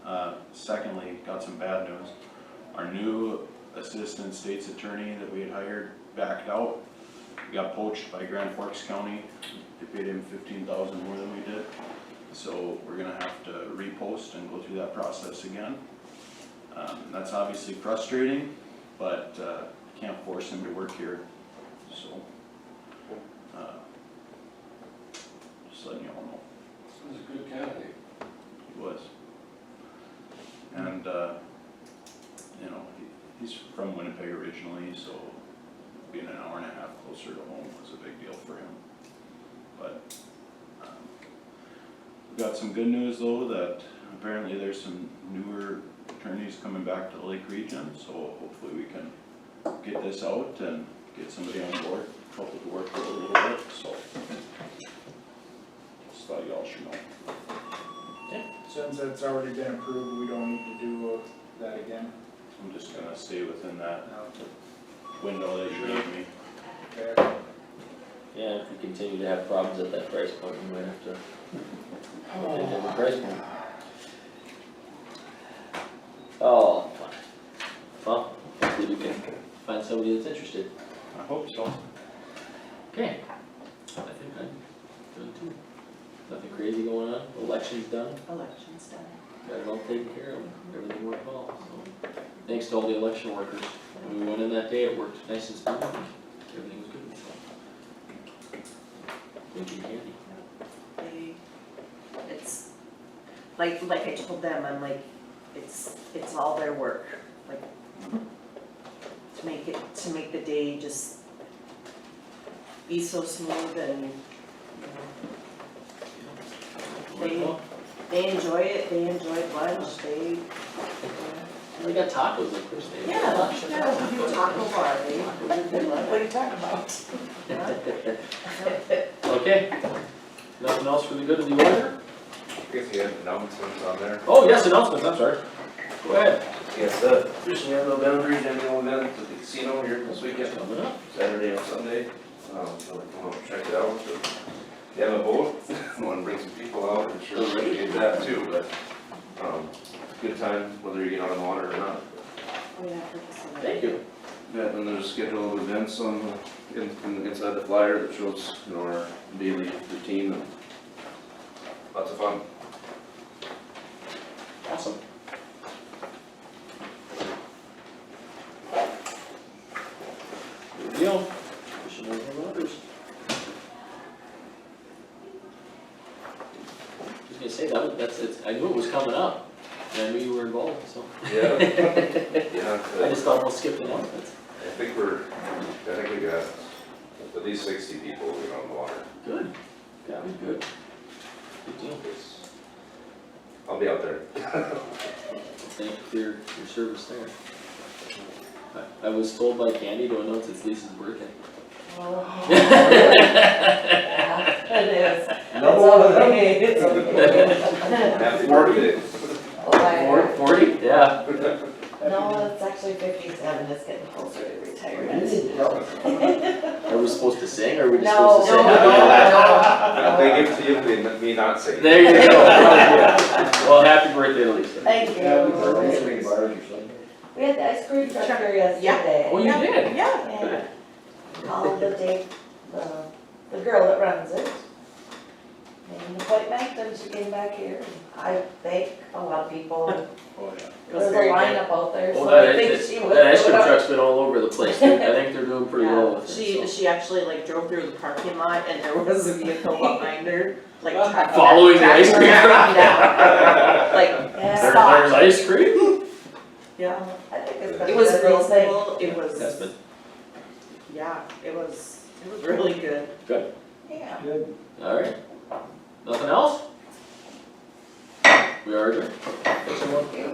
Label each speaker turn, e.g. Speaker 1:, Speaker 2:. Speaker 1: Uh, secondly, got some bad news. Our new assistant state's attorney that we had hired backed out. He Got poached by Grand Forks County. They paid him fifteen thousand more than we did. So we're gonna have to repost and go through that process again. Um, that's obviously frustrating, but, uh, can't force him to work here, so. uh, Just letting you all know.
Speaker 2: This is a good candidate.
Speaker 1: He was. And, uh, you know, he, he's from Winnipeg originally, so being an hour and a half closer to home was a big deal for him. But, um, we got some good news though, that apparently there's some newer attorneys coming back to the Lake Region, so hopefully we can get this out and get somebody on board, help with the work a little bit, so. Just thought y'all should know.
Speaker 3: Since that's already been approved, we don't need to do uh, that again.
Speaker 1: I'm just gonna stay within that
Speaker 3: No.
Speaker 1: window that you gave me.
Speaker 3: Okay.
Speaker 4: Yeah, if we continue to have problems at that price point, we might have to. look at a different price point. Oh, fine. Well, hopefully we can find somebody that's interested.
Speaker 1: I hope so.
Speaker 4: Okay. I think I'm done too. Nothing crazy going on, election's done,
Speaker 5: elections done.
Speaker 4: got it all taken care of, everything worked well, so. Thanks to all the election workers, When we went in that day, it worked nice and smooth, everything was good, so. Thank you, Candy.
Speaker 5: They, it's, like, like I told them, I'm like, it's, it's all their work, like, to make it, to make the day just be so smooth and, you know,
Speaker 4: Worked well.
Speaker 5: they enjoy it, they enjoy lunch, they,
Speaker 4: We got tacos of course. they-
Speaker 5: yeah, yeah, we do taco bar, they, they love it.
Speaker 6: you talking about?
Speaker 4: Okay, nothing else for the good of the order?
Speaker 6: I guess you had announcements on there.
Speaker 4: Oh, yes, announcements, I'm sorry. Go ahead.
Speaker 6: Yes, uh, fishing at the boundaries, annual event at the casino here this weekend,
Speaker 4: Coming up.
Speaker 6: Saturday and Sunday. Um, so like, come on, check it out. If you have a boat, wanna bring some people out, I'm sure we can get that too, but, um, good time, whether you get out on the water or not.
Speaker 5: We have to decide.
Speaker 4: Thank you.
Speaker 6: Yeah, and there's a schedule of events on, the- in, in- inside the flyer that shows, you know, our daily routine and lots of fun.
Speaker 4: Awesome. Good deal. Fishing over the waters. I was gonna say, that, was- that's, it's, I knew it was coming up, and I knew you were involved, so.
Speaker 6: Yeah. Yeah.
Speaker 4: I just thought we'll skip the announcements.
Speaker 6: I think we're, I think we got at least sixty people, you know, on the water.
Speaker 4: Good. That was good. Good deal.
Speaker 6: It's- I'll be out there.
Speaker 4: Thank you for your, your service there. I, I was told by Candy to announce it's Lisa's birthday.
Speaker 5: Oh,
Speaker 4: Happy
Speaker 5: yeah, It is.
Speaker 6: It's Happy birthday.
Speaker 7: Well,
Speaker 4: Forty? Yeah.
Speaker 7: I- No, it's actually fifty-seven, it's getting closer to retirement.
Speaker 4: Are we supposed to sing, or are we just
Speaker 7: No,
Speaker 4: supposed to
Speaker 7: no,
Speaker 4: say?
Speaker 7: no,
Speaker 6: They give it to you, they, let me not say.
Speaker 4: There you go. Well, happy birthday to Lisa.
Speaker 7: thank you.
Speaker 3: Well,
Speaker 7: We had the ice cream truck here
Speaker 4: Oh,
Speaker 7: yesterday.
Speaker 4: you did?
Speaker 5: Yeah.
Speaker 7: And called the day, the, the girl that runs it. Made an appointment, and she came back here, I thank a lot of people,
Speaker 1: Oh, yeah.
Speaker 7: there was a
Speaker 4: Very good.
Speaker 7: lineup out there,
Speaker 4: Well,
Speaker 7: so I
Speaker 4: Oh, that,
Speaker 7: think she
Speaker 4: that,
Speaker 7: was.
Speaker 4: that ice cream
Speaker 7: doing-
Speaker 4: truck's been all over the place, I think they're doing pretty well with
Speaker 5: She,
Speaker 4: it, so.
Speaker 5: she actually like drove through the parking lot and there was a vehicle behind her, like tracking.
Speaker 4: Following the ice cream truck?
Speaker 5: Like,
Speaker 4: There-
Speaker 7: Yeah,
Speaker 4: There's ice cream?
Speaker 5: yeah,
Speaker 7: I think it's been
Speaker 5: it
Speaker 7: a
Speaker 5: was
Speaker 7: good
Speaker 5: real
Speaker 7: thing.
Speaker 5: cool, it
Speaker 4: That's
Speaker 5: was,
Speaker 4: been,
Speaker 5: yeah, it was, it was really good.
Speaker 7: Yeah.
Speaker 4: alright. Nothing else? We are adjourned. Thanks, everyone.